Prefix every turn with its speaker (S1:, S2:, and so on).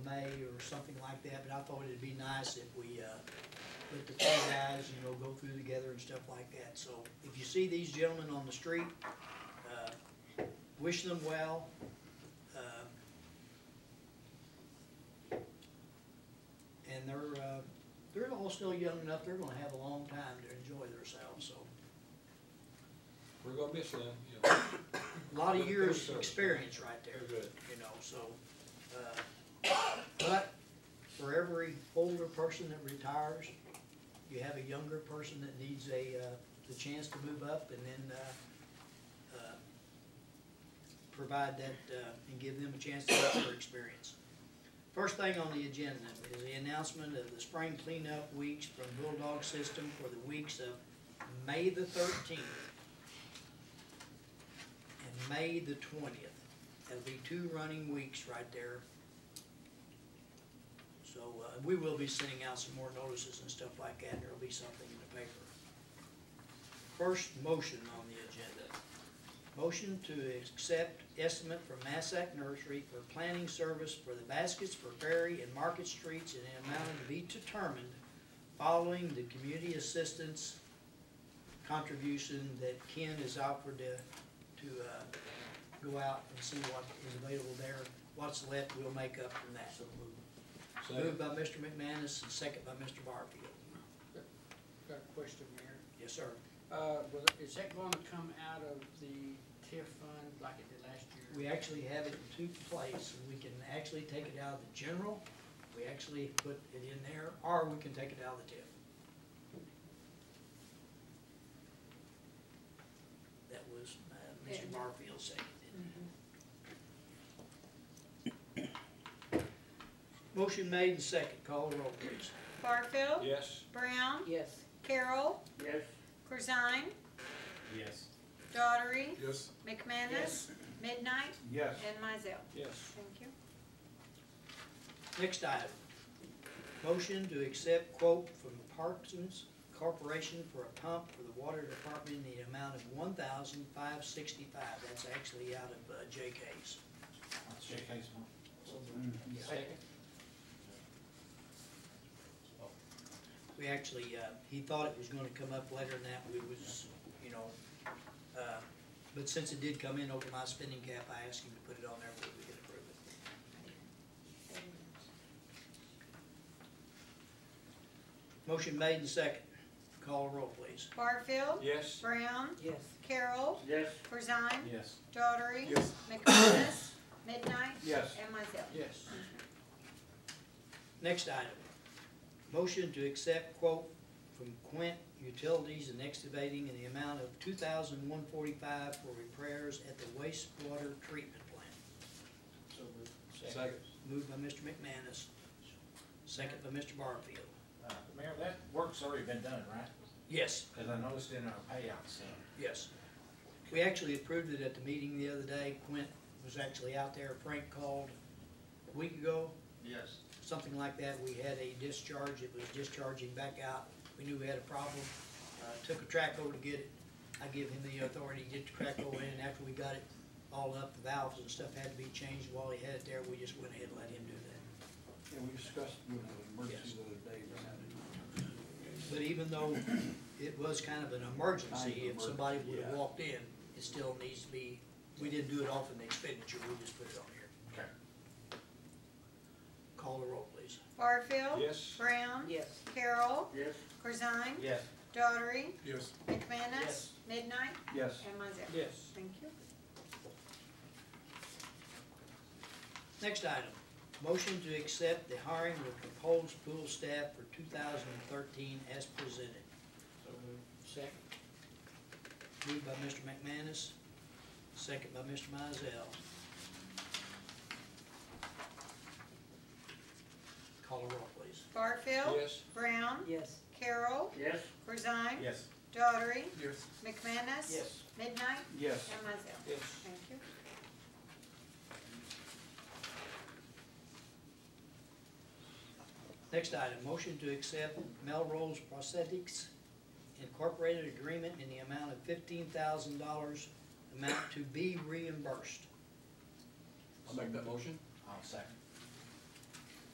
S1: May or something like that, but I thought it'd be nice if we, uh, put the two guys, you know, go through together and stuff like that. So if you see these gentlemen on the street, uh, wish them well. Um, And they're, uh, they're all still young enough, they're gonna have a long time to enjoy themselves, so.
S2: We're gonna miss them, you know.
S1: A lot of
S2: Good
S1: years'
S2: service.
S1: experience right there.
S2: Very good.
S1: You know, so, uh, but for every older person that retires, you have a younger person that needs a, uh, the chance to move up and then, uh, uh, provide that, uh, and give them a chance to have their experience. First thing on the agenda is the announcement of the spring cleanup weeks from Bulldog System for the weeks of May the thirteenth and May the twentieth. That'll be two running weeks right there. So, uh, we will be sending out some more notices and stuff like that, and there'll be something in the paper. First motion on the agenda. Motion to accept estimate from Massac Nursery for planning service for the baskets for Ferry and Market Streets in an amount to be determined following the community assistance contribution that Ken has offered to to uh, go out and see what is available there. What's left, we'll make up from that. Moved
S2: Second.
S1: by Mr. McManus and second by Mr. Barfield.
S3: Got a question, Mayor.
S1: Yes, sir.
S3: Uh, was, is that gonna come out of the TIF fund like it did last year?
S1: We actually have it in two places. We can actually take it out of the general, we actually put it in there, or we can take it out of the TIF. That was uh, Mr. Barfield seconded. Motion made and second. Call the roll, please.
S4: Barfield.
S2: Yes,
S4: Brown.
S5: Yes.
S4: Carroll.
S3: Yes.
S4: Corzine.
S6: Yes.
S4: Daughtery.
S7: Yes.
S4: McManus. Midnight.
S7: Yes.
S4: And Mizell.
S2: yes,
S4: Thank you.
S1: Next item, motion to accept quote from Parkinson's Corporation for a pump for the water department in the amount of one thousand five sixty-five. That's actually out of uh, JK's.
S6: Shake hands, Mark.
S1: We actually, uh, he thought it was gonna come up later than that, we was, you know, uh, but since it did come in over my spending cap, I asked him to put it on there, but we could approve it. Motion made and second. Call a roll, please.
S4: Barfield.
S2: yes,
S4: Brown.
S5: Yes.
S4: Carroll.
S7: Yes.
S4: Corzine.
S6: Yes.
S4: Daughtery.
S7: Yes.
S4: McManus. Midnight.
S7: Yes.
S4: And Mizell.
S3: Yes.
S1: Next item, motion to accept quote from Quint Utilities and Excavating in the amount of two thousand one forty-five for repairs at the wastewater treatment plant.
S6: So
S2: second,
S1: Moved by Mr. McManus, second by Mr. Barfield.
S6: Uh, Mayor, that work's already been done, right?
S1: Yes,
S6: Cause I noticed in our payouts, uh,
S1: yes. We actually approved it at the meeting the other day. Quint was actually out there. Frank called a week ago.
S7: Yes.
S1: something like that. We had a discharge, it was discharging back out. We knew we had a problem, uh, took a traco to get it. I give him the authority to get the traco in, and after we got it all up, the valves and stuff had to be changed while he had it there. We just went ahead and let him do that.
S7: Yeah, we discussed with the emergency the other day. we had it.
S1: But even though it was kind of an emergency, if somebody would have
S7: Yeah.
S1: walked in, it still needs to be, we didn't do it off in the expenditure, we just put it on here.
S6: Okay.
S1: Call the roll, please.
S4: Barfield.
S2: yes,
S4: Brown.
S5: Yes.
S4: Carroll.
S7: Yes.
S4: Corzine.
S6: yes.
S4: Daughtery.
S7: Yes.
S4: McManus.
S6: Yes.
S4: Midnight.
S7: Yes.
S4: And Mizell.
S3: Yes.
S4: Thank you.
S1: Next item, motion to accept the hiring of proposed pool staff for two thousand and thirteen as presented.
S3: Second?
S1: Moved by Mr. McManus, second by Mr. Mizell. Call a roll, please.
S4: Barfield.
S2: yes,
S4: Brown.
S5: Yes.
S4: Carroll.
S7: Yes.
S4: Corzine.
S6: Yes.
S4: Daughtery.
S7: Yes.
S4: McManus. Midnight.
S7: Yes.
S4: And Mizell.
S2: yes.
S4: Thank you.
S1: Next item, motion to accept Melrose Prosthetics Incorporated agreement in the amount of fifteen thousand dollars, amount to be reimbursed.
S7: I'll make that motion.
S6: I'll second.